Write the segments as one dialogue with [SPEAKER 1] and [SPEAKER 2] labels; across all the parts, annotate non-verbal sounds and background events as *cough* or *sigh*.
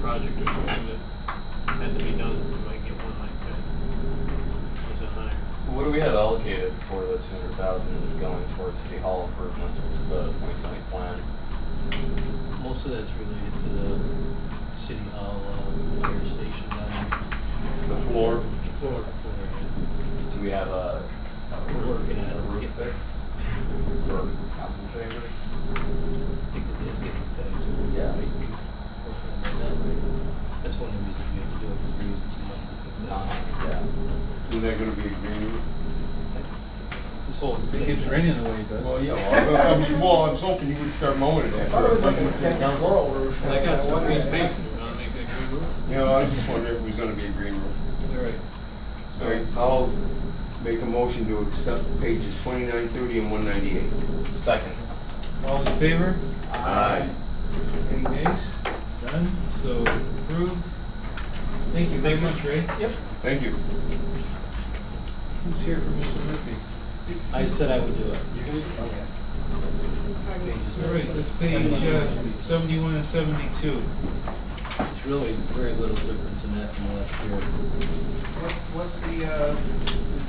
[SPEAKER 1] project or something that had to be done, we might get one like that. Was it higher?
[SPEAKER 2] What do we have allocated for the two hundred thousand going towards city hall improvements? What's the twenty twenty plan?
[SPEAKER 3] Most of that's related to the city hall, uh, fire station down
[SPEAKER 2] The floor.
[SPEAKER 3] in Florida.
[SPEAKER 2] Do we have a, a
[SPEAKER 3] We're
[SPEAKER 2] roof,
[SPEAKER 3] working on it.
[SPEAKER 2] a roof fix for council chambers?
[SPEAKER 3] I think it is getting fixed.
[SPEAKER 2] Yeah.
[SPEAKER 3] Hopefully by then. That's one of the reasons we have to do it, because we're using some money to fix
[SPEAKER 2] It's not,
[SPEAKER 3] that.
[SPEAKER 2] yeah.
[SPEAKER 4] Isn't that gonna be green?
[SPEAKER 3] This whole.
[SPEAKER 5] It keeps raining the way it does.
[SPEAKER 2] Well, yeah,
[SPEAKER 4] Well, I was-
[SPEAKER 2] well,
[SPEAKER 4] well, I was hoping you would start mowing it.
[SPEAKER 6] I thought it was like a
[SPEAKER 4] after-
[SPEAKER 6] dead squirrel roof.
[SPEAKER 1] They got some
[SPEAKER 6] Wonder-
[SPEAKER 1] green paint, you wanna make that green roof?
[SPEAKER 4] You know, I was just wondering if it was gonna be a green roof.
[SPEAKER 3] All right.
[SPEAKER 4] All right, I'll make a motion to accept pages twenty-nine, thirty, and one ninety-eight.
[SPEAKER 2] second.
[SPEAKER 5] All in favor?
[SPEAKER 4] Aye.
[SPEAKER 5] Any nays? None, so approved. Thank you very much, Ray.
[SPEAKER 4] Thank you.
[SPEAKER 5] Who's here for Mr. Murphy?
[SPEAKER 3] I said I would do it.
[SPEAKER 5] Okay. All right, that's page uh, seventy-one and seventy-two.
[SPEAKER 3] It's really very little difference in that from last year.
[SPEAKER 6] What- What's the, uh,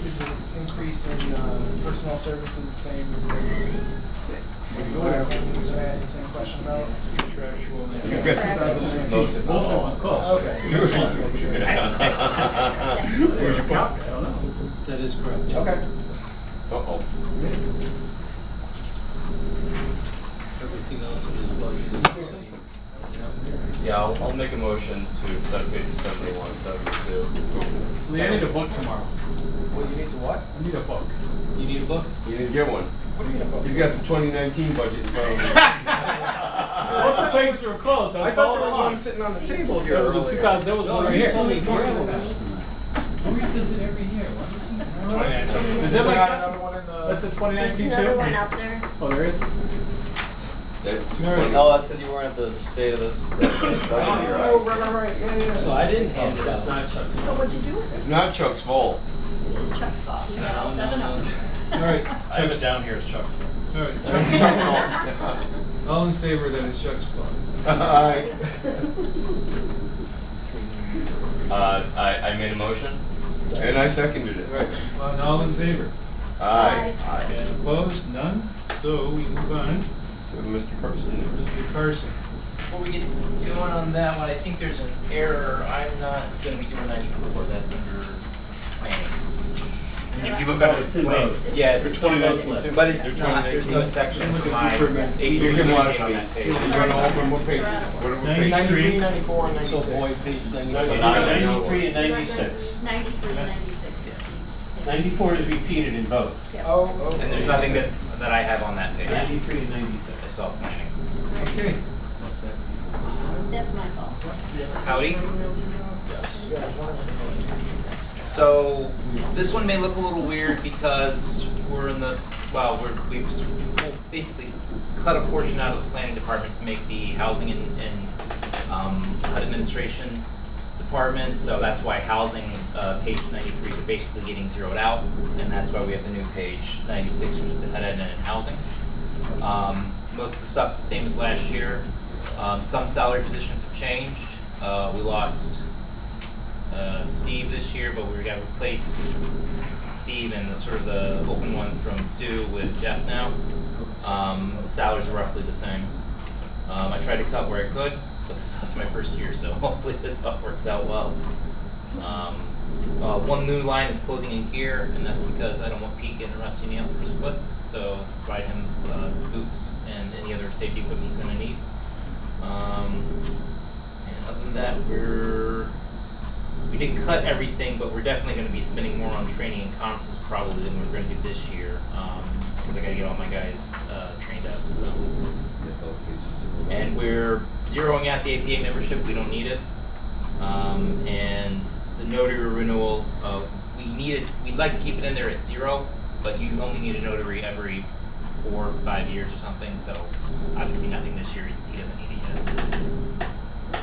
[SPEAKER 6] is the increase in uh, personnel services the same as? the last one you asked the same question about?
[SPEAKER 5] Contractual. and-
[SPEAKER 4] You've got 2019.
[SPEAKER 2] Most of
[SPEAKER 5] Most
[SPEAKER 2] all.
[SPEAKER 5] of them, close.
[SPEAKER 6] Okay.
[SPEAKER 4] Where's your pump?
[SPEAKER 3] That is correct.
[SPEAKER 6] Okay.
[SPEAKER 4] Uh-oh.
[SPEAKER 3] Everything else in this budget is the same.
[SPEAKER 2] Yeah, I'll, I'll make a motion to accept pages seventy-one, seventy-two.
[SPEAKER 5] Lee, I need a book tomorrow.
[SPEAKER 6] Well, you need to what?
[SPEAKER 5] I need a book.
[SPEAKER 3] You need a book?
[SPEAKER 4] You didn't get one.
[SPEAKER 6] What do you mean?
[SPEAKER 4] He's got the twenty nineteen budget in front of him.
[SPEAKER 6] *laughs*
[SPEAKER 5] Both the pages were closed, I
[SPEAKER 6] I
[SPEAKER 5] was
[SPEAKER 6] thought there
[SPEAKER 5] following
[SPEAKER 6] was one
[SPEAKER 5] along.
[SPEAKER 6] sitting on the table here
[SPEAKER 5] That was the two thousand,
[SPEAKER 6] earlier.
[SPEAKER 5] that was one
[SPEAKER 3] No,
[SPEAKER 5] right
[SPEAKER 3] you
[SPEAKER 5] here.
[SPEAKER 3] told me forever.
[SPEAKER 5] Is
[SPEAKER 6] Is
[SPEAKER 5] that
[SPEAKER 6] there
[SPEAKER 5] like,
[SPEAKER 6] not another one in the?
[SPEAKER 5] that's a twenty
[SPEAKER 7] There's
[SPEAKER 5] nineteen
[SPEAKER 7] another one
[SPEAKER 5] too?
[SPEAKER 7] out there.
[SPEAKER 5] Oh, there is?
[SPEAKER 4] That's too
[SPEAKER 5] No,
[SPEAKER 4] funny.
[SPEAKER 2] No, Oh, that's because you weren't at the state of this.
[SPEAKER 6] Oh, right, right, right, yeah, yeah.
[SPEAKER 3] So I didn't hand it out.
[SPEAKER 5] Chuck's.
[SPEAKER 7] So what'd you do with
[SPEAKER 4] It's not Chuck's fault.
[SPEAKER 7] it? It is Chuck's fault. He got all seven of them.
[SPEAKER 5] All right.
[SPEAKER 8] I have it down here as Chuck's.
[SPEAKER 5] *laughs* All
[SPEAKER 7] *laughs*
[SPEAKER 5] right, Chuck's fault.
[SPEAKER 4] Chuck's
[SPEAKER 5] All in favor, that is Chuck's fault.
[SPEAKER 4] fault. Aye.
[SPEAKER 2] Uh, I, I made a motion.
[SPEAKER 4] And I seconded it.
[SPEAKER 5] Right, well, and Uh, all in favor?
[SPEAKER 4] Aye.
[SPEAKER 2] Aye.
[SPEAKER 5] And opposed, none? So we move on,
[SPEAKER 4] To Mr. Carson.
[SPEAKER 5] Mr. Carson.
[SPEAKER 9] Before we get going on that one, I think there's an error. I'm not gonna be doing ninety-four, that's under planning. And If you look up.
[SPEAKER 8] It's in both.
[SPEAKER 9] Yeah, it's.
[SPEAKER 8] There's 2019.
[SPEAKER 9] But it's not, there's no
[SPEAKER 2] *laughs*
[SPEAKER 9] section for my
[SPEAKER 4] You
[SPEAKER 9] eighty-six
[SPEAKER 4] can watch
[SPEAKER 9] on
[SPEAKER 4] me.
[SPEAKER 9] that
[SPEAKER 4] You're
[SPEAKER 9] page.
[SPEAKER 4] gonna open what pages? What are we pages?
[SPEAKER 6] Ninety-three, ninety-four, and
[SPEAKER 3] So
[SPEAKER 6] ninety-six.
[SPEAKER 3] boy, page
[SPEAKER 2] So
[SPEAKER 3] ninety-seven.
[SPEAKER 2] not a
[SPEAKER 8] Ninety-three and
[SPEAKER 7] So that's
[SPEAKER 8] ninety-six.
[SPEAKER 7] Ninety-three, ninety-six is Steve's.
[SPEAKER 8] Ninety-four is repeated in both.
[SPEAKER 7] Yeah.
[SPEAKER 6] Oh, oh.
[SPEAKER 9] And there's nothing that's, that I have on that page.
[SPEAKER 8] Ninety-three and ninety-six.
[SPEAKER 9] It's all planning.
[SPEAKER 5] Okay.
[SPEAKER 7] That's my fault.
[SPEAKER 9] Howdy?
[SPEAKER 2] Yes.
[SPEAKER 9] So this one may look a little weird because we're in the, well, we're, we've s- basically cut a portion out of the planning department to make the housing and, and um, administration department. So that's why housing, uh, page ninety-three is basically getting zeroed out. And that's why we have the new page ninety-six, which is the head end and housing. Um, most of the stuff's the same as last year. Um, some salary positions have changed. Uh, we lost uh, Steve this year, but we got replaced Steve and the sort of the open one from Sue with Jeff now. Um, the salaries are roughly the same. Um, I tried to cut where I could, but this is *laughs* my first year, so hopefully this all works out well. Um, uh, one new line is clothing and gear, and that's because I don't want Pete getting a rusty nail through his foot, so let's provide him uh, boots and any other safety equipment he's going to need. Um, and other than that, we're we did cut everything, but we're definitely going to be spending more on training and conferences probably than we're going to do this year because I got to get all my guys uh, trained up. So. And we're zeroing out the APA membership. We don't need it. Um, and the notary renewal, uh, we need it. We'd like to keep it in there at zero, but you only need a notary every four, or five years or something. So obviously nothing this year. He's, he doesn't need it yet. so.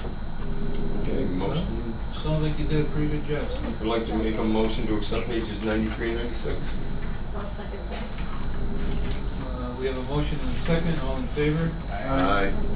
[SPEAKER 4] Okay, motion.
[SPEAKER 5] Sounds like you did a pretty good job. Steve.
[SPEAKER 4] I'd like to make a motion to accept pages ninety-three and ninety-six.
[SPEAKER 7] So I'll second that.
[SPEAKER 5] Uh, We have a motion and a second, all in favor?
[SPEAKER 4] Aye.